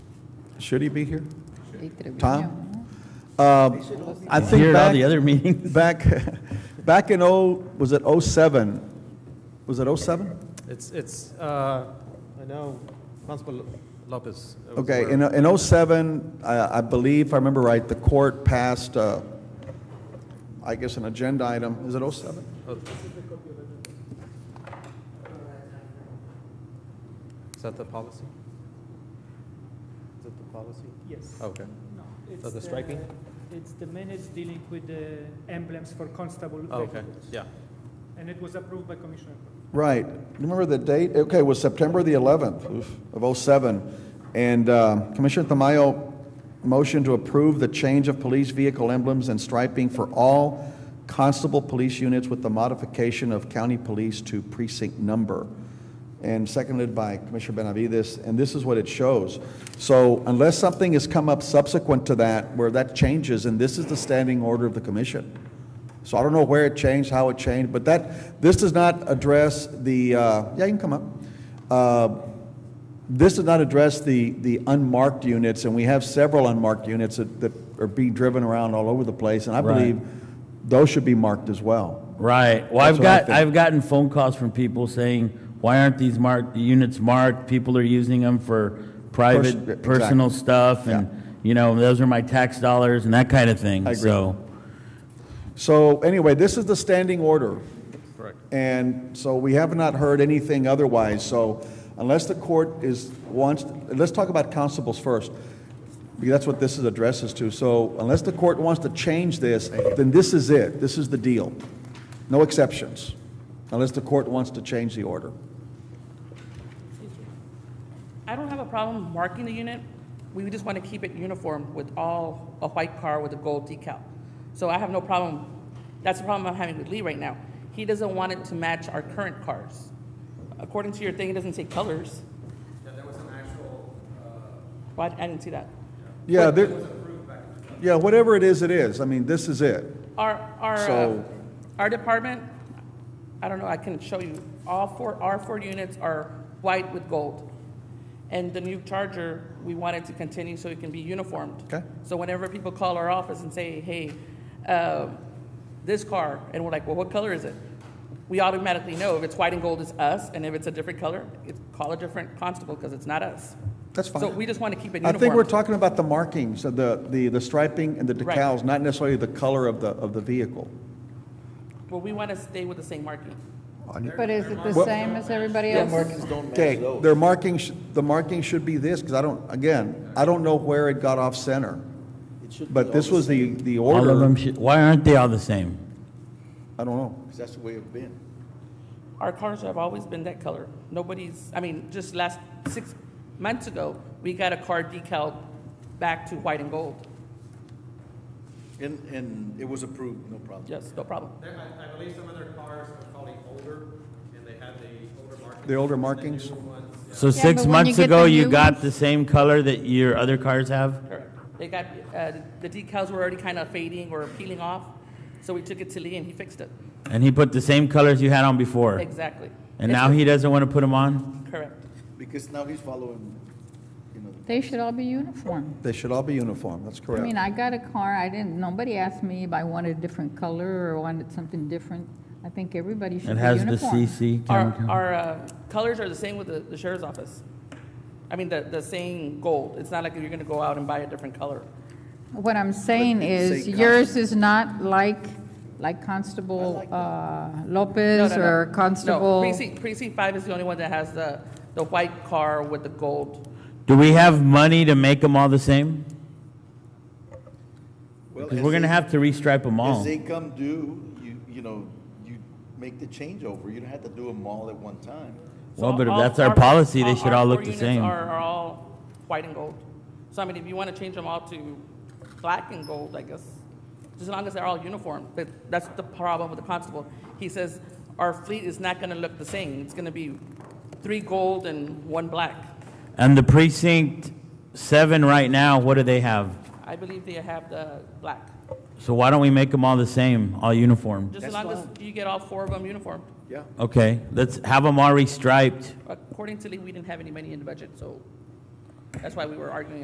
Should he be here? Time. Tom? Uh, I think Here at all the back, other meetings. back, back in oh, was it oh seven? Was it oh seven? It's, it's, uh, I know Constable Lopez. was Okay, aware. in, in oh seven, I, I believe, if I remember right, the court passed, uh, I guess, an agenda item. Is it oh seven? Is that the policy? Is that the policy? Yes. Okay. No, it's Oh. the striking? It's the minutes dealing with the emblems for constable. Oh, Okay, vehicles. yeah. And it was approved by Commissioner. Court. Right. Remember the date? Okay, it was September the 11th oof, of '07. And uh, Commissioner Tamayo, motion to approve the change of police vehicle emblems and striping for all constable police units with the modification of county police to precinct number. And seconded by Commissioner Benavides, and this is what it shows. So unless something has come up subsequent to that where that changes, and this is the standing order of the commission. So I don't know where it changed, how it changed, but that, this does not address the, uh, yeah, you can come up. Uh, This does not address the, the unmarked units, and we have several unmarked units that, that are being driven around all over the place, and I Right. believe those should be marked as well. Right. Well, That's I've what I got, think. I've gotten phone calls from people saying, why aren't these marked, the units marked? People are using them for Pers- private, personal exactly. stuff and, you know, those are my tax dollars and that kind of I thing, agree. so. So anyway, this is the standing order. Correct. And so we have not heard anything otherwise, so unless the court is, wants, let's talk about constables first, because that's what this is addresses to. So unless the court wants to change this, then this is it, this is the deal. No exceptions, unless the court wants to change the order. I don't have a problem marking the unit. We just want to keep it uniform with all, a white car with a gold decal. So I have no problem, that's the problem I'm having with Lee right now. He doesn't want it to match our current cars. According to your thing, it doesn't say colors. Yeah, there was an actual, Why, I didn't see that. Yeah, there, yeah, whatever it is, it is, I mean, this is it. Our, our, uh, So- our department, I don't know, I can show you, all four, our four units are white with gold. And the new Charger, we want it to continue so it can be uniformed. Okay. So whenever people call our office and say, hey, uh, this car, and we're like, well, what color is it? We automatically know if it's white and gold, it's us, and if it's a different color, it's, call a different constable, because it's not us. That's fine. So we just want to keep it I uniform. think we're talking about the markings, of the, the the striping and the Right. decals, not necessarily the color of the, of the vehicle. Well, we want to stay with the same marking. But is it the Well- same as everybody Yes. else? Okay, their marking, sh- the marking should be this, because I don't, again, I don't know where it got off center. But this was the, the All of them order. should, why aren't they all the same? I don't know. That's the way it's been. Our cars have always been that color. Nobody's, I mean, just last six months ago, we got a car decal back to white and gold. And, and it was approved, no problem. Yes, no problem. There- I, I believe some of their cars are probably older, and they have the older markings. The older and markings? newer ones, yeah. So Yeah, six but when you months get ago, the you new got ones- the same color that your other cars have? Correct. They got, uh, the decals were already kind of fading or peeling off, so we took it to Lee and he fixed it. And he put the same colors you had on before? Exactly. And now he doesn't want to put them on? Correct. Because now he's following, you know, They should all be uniform. They should all be uniform, that's I mean, correct. I got a car, I didn't, nobody asked me if I wanted a different color or wanted something different. I think everybody should It be has the uniform. CC Our, chemical. our uh, colors are the same with the the sheriff's office. I mean, the, the same gold. It's not like you're going to go out and buy a different color. What I'm saying is same yours is not like, like Constable uh, Lopez No, no, no. or No, Constable. Precinct, precinct five is the only one that has the, the white car with the gold. Do we have money to make them all the same? well. Because as we're gonna they- have to restripe them As all. they come due, you, you know, you make the changeover. You don't have to do them all at one time. So Well, but if all- that's our policy, they should all four look the units same. Are, are all white and gold. So I mean, if you want to change them all to black and gold, I guess, just as long as they're all uniform. But that's the problem with the constable. He says our fleet is not going to look the same. It's going to be three gold and one black. And the precinct seven right now, what do they have? I believe they have the black. So why don't we make them all the same, all uniform? Just as That's long as you get all four of them uniform. Yeah. Okay, let's have them all restriped. According to Lee, we didn't have any money in the budget, so that's why we were arguing